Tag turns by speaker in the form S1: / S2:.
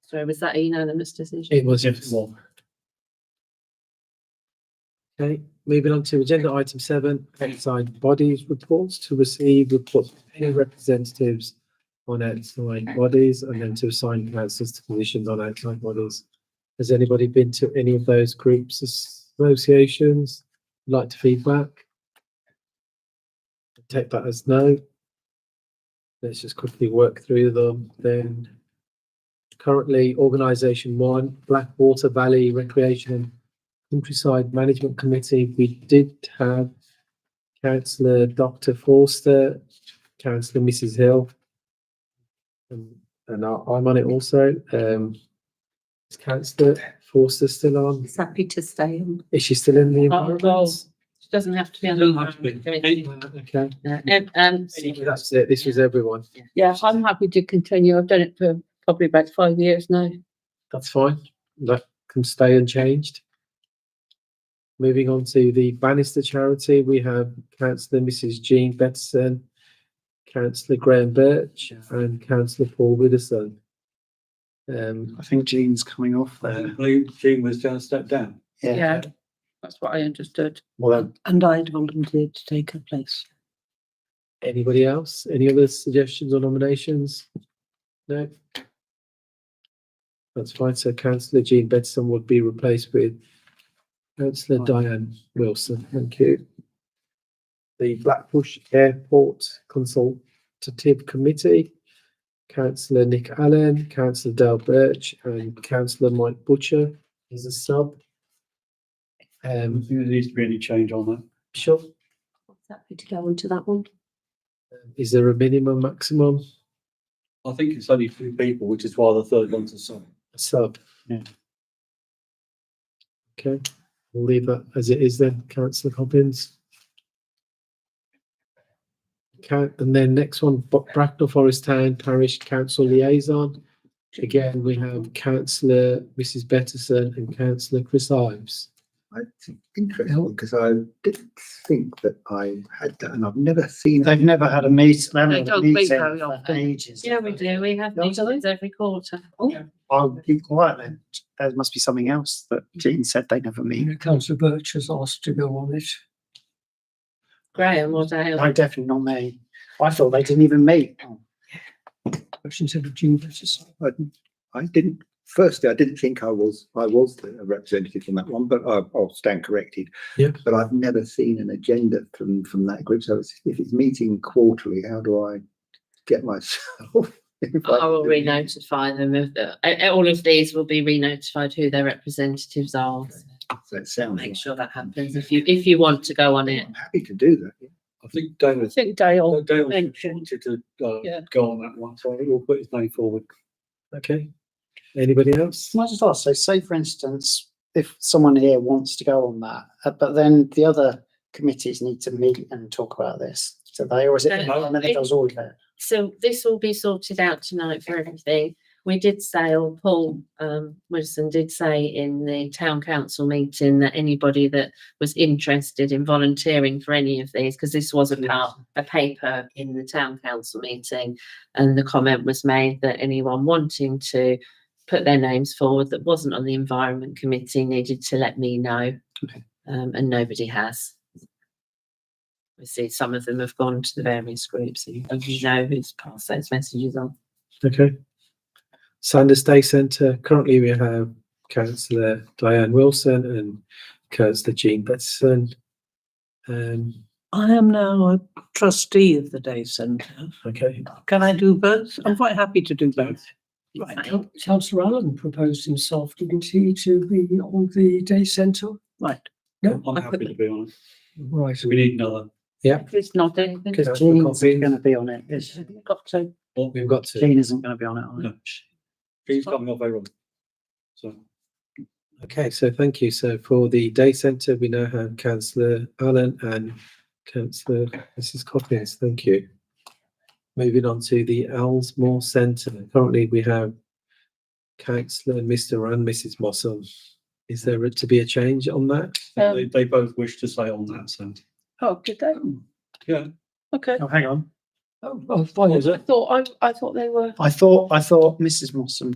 S1: So was that a unanimous decision?
S2: It was, yes.
S3: Okay, moving on to agenda item seven, outside bodies reports to receive reports from any representatives on outside bodies and then to assign councillors to positions on outside bodies. Has anybody been to any of those groups, associations, like to feedback? Take that as no. Let's just quickly work through them then. Currently, organisation one, Blackwater Valley Recreation and Countryside Management Committee, we did have councillor Dr Forster, councillor Mrs Hill. And and I- I'm on it also. Um, is councillor Forster still on?
S4: He's happy to stay on.
S3: Is she still in the
S1: Oh, well.
S3: environment?
S1: It Doesn't have to be. on the
S2: Doesn't have to be.
S1: committee.
S3: Okay,
S1: Uh, Um,
S3: that's it. This was everyone.
S5: Yeah, I'm happy to continue. I've done it for probably about five years now.
S3: That's fine. That can stay unchanged. Moving on to the Bannister charity, we have councillor Mrs Jean Bettison, councillor Graham Birch and councillor Paul Widdowson. Um,
S6: I think Jean's coming off there.
S2: Jean was down, stepped down.
S5: Yeah, that's what I understood.
S3: well, um,
S4: And I'd volunteered to take her place.
S3: anybody else? Any other suggestions or nominations? No? That's fine. So councillor Jean Bettison would be replaced with councillor Diane Wilson. Thank you. The Blackbush Airport Consultative Committee, councillor Nick Allen, councillor Dale Birch and councillor Mike Butcher is a sub.
S2: Um,
S3: Um,
S2: there needs to be any change on that.
S3: sure.
S4: Happy to go on to that one.
S3: Is there a minimum, maximum?
S2: I think it's only two people, which is why the third one's a sub.
S3: a sub.
S2: Yeah.
S3: Okay, we'll leave that as it is then, councillor Cobbins. Okay, and then next one, Bo- Bracknell Forest Town Parish Council Liaison. Again, we have councillor Mrs Bettison and councillor Chris Ives.
S6: I think interesting because I didn't think that I had that and I've never seen. They've never had a meet, they
S5: They
S6: haven't had a
S5: don't meet
S6: meeting
S5: very
S6: for
S5: often.
S6: ages.
S1: Yeah, we do. We have
S6: Yeah,
S1: meetings
S6: do they?
S1: every quarter.
S6: I'll keep quiet then. There must be something else that
S5: Mm.
S6: Jean said they never meet.
S7: Councillor Birch has asked to go on it.
S1: Graham or Dale.
S6: No, definitely not me. I thought they didn't even meet.
S7: Questions of Jean versus.
S8: I, I didn't, firstly, I didn't think I was, I was the representative on that one, but I, I'll stand corrected.
S3: Yep.
S8: But I've never seen an agenda from, from that group. So it's- if it's meeting quarterly, how do I get myself? if
S1: I will
S8: do-
S1: re-notify them of, the- uh, all of these will be re-notified who their representatives are.
S8: So it sounds,
S1: Make sure that happens if you, if you want to go on it.
S8: I'm happy to do that.
S2: I think
S5: I
S2: David,
S5: think Dale,
S2: David
S5: mentioned.
S2: wanted to, uh,
S5: Yeah.
S2: go on that one, so I think we'll put his name forward.
S3: Okay, anybody else?
S6: Can I just ask, so say for instance, if someone here wants to go on that, uh, but then the other committees need to meet and talk about this, do they, or is
S5: Uh,
S6: it?
S1: No.
S6: And then it does all of it?
S1: So this will be sorted out tonight for everything. We did say, or Paul um Wilson did say in the town council meeting that anybody that was interested in volunteering for any of these, because this was a part, a paper in the town council meeting. And the comment was made that anyone wanting to put their names forward that wasn't on the environment committee needed to let me know. Um, and nobody has. We see some of them have gone to the various groups, so you you know who's passed those messages on.
S3: Okay. Sanders Day Centre, currently we have councillor Diane Wilson and councillor Jean Bettison. Um,
S4: I am now a trustee of the day centre.
S3: Okay,
S4: Can I do both? I'm quite happy to do both.
S1: Right.
S7: Coun- Councillor Allen proposed himself, didn't he, to be on the day centre?
S4: Right.
S2: I'm happy to be on it.
S7: Right.
S2: So we need another,
S5: Chris nodding.
S6: Because
S3: Councillor
S6: Jean's
S3: Cobbins.
S6: going to be on it. is she?
S4: Got to.
S3: we've got to.
S6: Jean isn't going to be on it, are
S2: No. he's coming off everyone. So.
S3: Okay, so thank you. So for the day centre, we now have councillor Allen and councillor Mrs Coppins. Thank you. Moving on to the Ellsmore Centre. Currently, we have councillor Mr and Mrs Mossam. Is there to be a change on that?
S5: Um,
S2: They, they both wish to stay on that, so,
S5: Oh, did they?
S6: Hmm.
S2: yeah.
S5: Okay.
S6: Oh, hang on.
S7: Oh, oh, fine.
S5: I thought, I, I thought they were.
S6: I thought, I thought Mrs Mossam